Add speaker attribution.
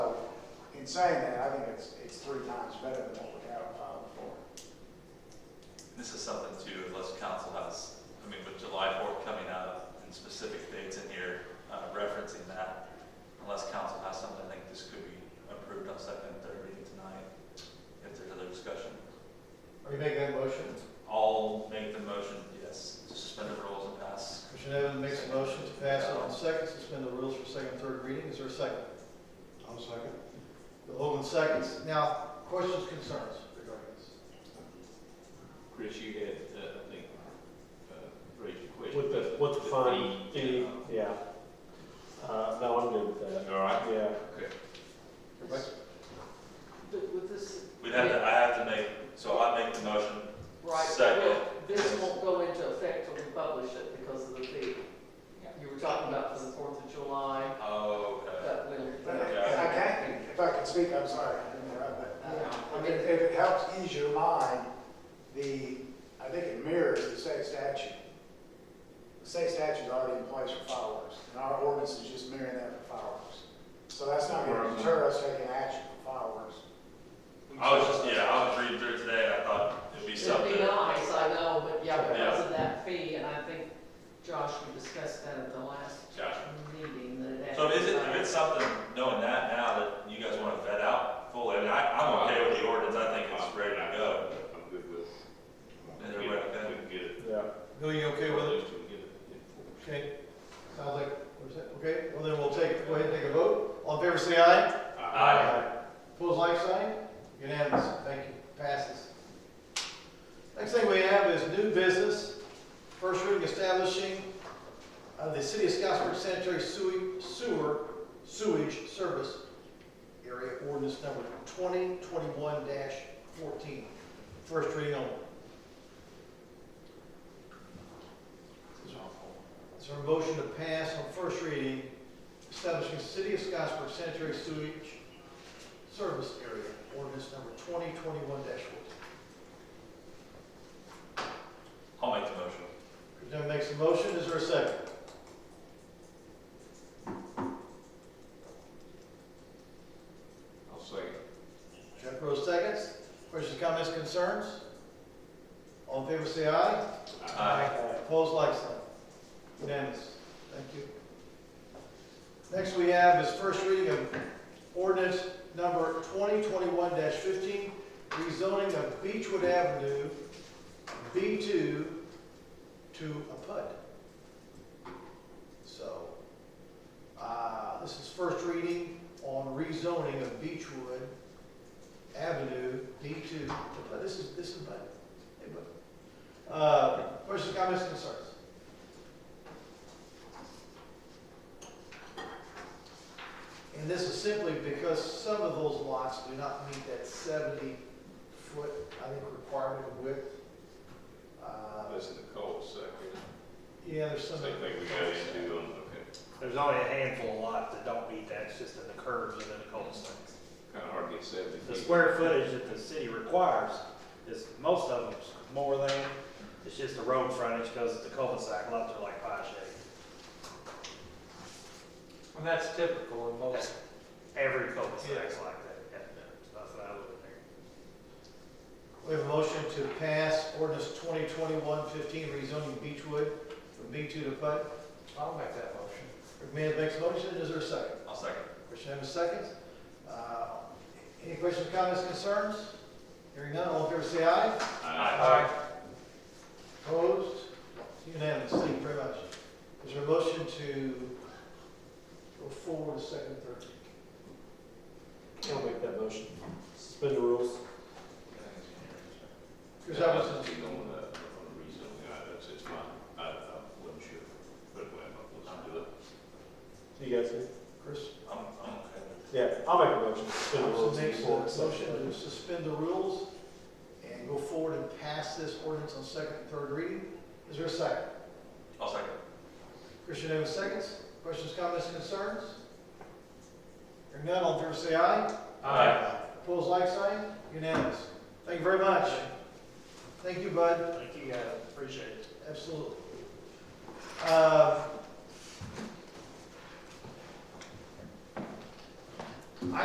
Speaker 1: in saying that, I think it's, it's three times better than what we had on file before.
Speaker 2: This is something too, unless council has, I mean, with July fourth coming up and specific dates in here uh, referencing that, unless council has something, I think this could be approved on second, and third reading tonight, if there's other discussion.
Speaker 3: Are you making that motion?
Speaker 2: I'll make the motion, yes, to suspend the rules and pass.
Speaker 3: Commissioner Evans makes a motion to pass it on second, suspend the rules for second and third reading. Is there a second?
Speaker 4: I'll second.
Speaker 3: Bill Hoagland seconds. Now, questions, concerns regarding this?
Speaker 5: Chris, you had, uh, I think, uh, raised a question.
Speaker 6: With the, with the fine fee,
Speaker 5: uh,
Speaker 6: yeah. Uh, no, I'm good with that.
Speaker 5: All right,
Speaker 6: Yeah,
Speaker 7: But with this,
Speaker 2: We'd have to, I have to make, so I make the motion,
Speaker 7: right, well,
Speaker 2: Second.
Speaker 7: this won't go into effect till we publish it because of the fee. You were talking about for the Fourth of July,
Speaker 2: oh, okay.
Speaker 7: that winter.
Speaker 1: But if if I can, if I can speak, I'm sorry, I didn't interrupt, but, I mean, if it helps ease your mind, the, I think it mirrors the state statute. The state statute's already in place for fireworks, and our ordinance is just mirroring that for fireworks. So that's not gonna deter us taking action for fireworks.
Speaker 2: I was just, yeah, I was reading through it today and I thought it'd be something.
Speaker 7: It'd be nice, I know, but yeah, because
Speaker 2: Yeah.
Speaker 7: of that fee, and I think, Josh, we discussed that at the last
Speaker 2: Gotcha.
Speaker 7: meeting, that it.
Speaker 2: So is it, if
Speaker 7: actually-
Speaker 2: it's something, knowing that now, that you guys wanna vet out fully, I mean, I, I'm okay with the ordinance, I think it's ready to go.
Speaker 5: I'm good with.
Speaker 2: And they're ready to go.
Speaker 5: We can get it.
Speaker 6: yeah.
Speaker 3: Bill, you okay with it?
Speaker 5: We can get it enforced.
Speaker 3: Okay. Sounds like, where's that? Okay, well then we'll take, go ahead and take a vote. All in favor, say aye.
Speaker 2: Aye.
Speaker 3: Pulls like sign, unanimous, thank you, passes. Next thing we have is new business, first reading establishing uh, the City of Scottsburg sanitary sewer- sewer, sewage service area ordinance number twenty twenty-one 14 fourteen, first reading only. Is there a motion to pass on first reading establishing City of Scottsburg sanitary sewage service area, ordinance number twenty twenty-one dash fourteen.
Speaker 2: I'll make the motion.
Speaker 3: President makes a motion, is there a second?
Speaker 5: I'll second.
Speaker 3: Jeff Rose seconds, questions, comments, concerns? All in favor, say aye.
Speaker 2: Uh,
Speaker 3: Opposed, like sign. Unanimous, thank you. Next we have is first reading of ordinance number twenty twenty-one fifteen, rezoning of Beechwood Avenue, B two to a PUD. So, uh, this is first reading on rezoning of Beechwood Avenue, B two to PUD. This is, this is PUD. Hey, bud. Uh, Questions, comments, concerns? And this is simply because some of those lots do not meet that seventy-foot, I think, requirement of width. Uh,
Speaker 5: That's in the cul-de-sac. isn't
Speaker 3: Yeah, there's some.
Speaker 5: it? Same thing we got into on, okay,
Speaker 8: There's only a handful of lots that don't meet that, it's just in the curves and in the cul-de-sacs.
Speaker 5: kind of hard to get seventy feet.
Speaker 8: The square footage that the city requires is, most of them's more than, it's just the road frontage, because the cul-de-sac lots are like pie shaped.
Speaker 9: And that's typical in most
Speaker 8: Every cul-de-sac's like that, yeah, there's nothing out of it there.
Speaker 3: We have a motion to pass ordinance 2021-15 rezoning Beechwood from B two to PUD.
Speaker 9: I'll make that motion.
Speaker 3: Rick Mann makes a motion, is there a second?
Speaker 2: I'll second.
Speaker 3: Christian Evans seconds. Uh, Any questions, comments, concerns? Hearing none, all in favor say aye.
Speaker 5: Aye.
Speaker 3: Opposed? It's Unanimous, thank you very much. Is there a motion to go forward to second, and third?
Speaker 6: I'll make that motion. Suspend the rules.
Speaker 3: Chris Evans,
Speaker 5: You know, uh, on the reason, uh, that's, it's fine. I, I wasn't sure, but I'm not to do it.
Speaker 6: You guys, good?
Speaker 3: Chris
Speaker 2: I'm, I'm okay with
Speaker 6: yeah, I'll make a motion. to Suspend the rules.
Speaker 3: Thompson makes a
Speaker 1: uh,
Speaker 6: before it's-
Speaker 3: motion to suspend the rules and go forward and pass this ordinance on second and third reading. Is there a second?
Speaker 2: it. I'll second.
Speaker 3: Christian Evans seconds. Questions, comments, concerns? Hearing none, all in favor say aye.
Speaker 2: Aye.
Speaker 3: Opposed, like sign, unanimous. Thank you very much. Thank you, bud,
Speaker 8: Thank you guys, appreciate it.
Speaker 3: absolutely. Uh,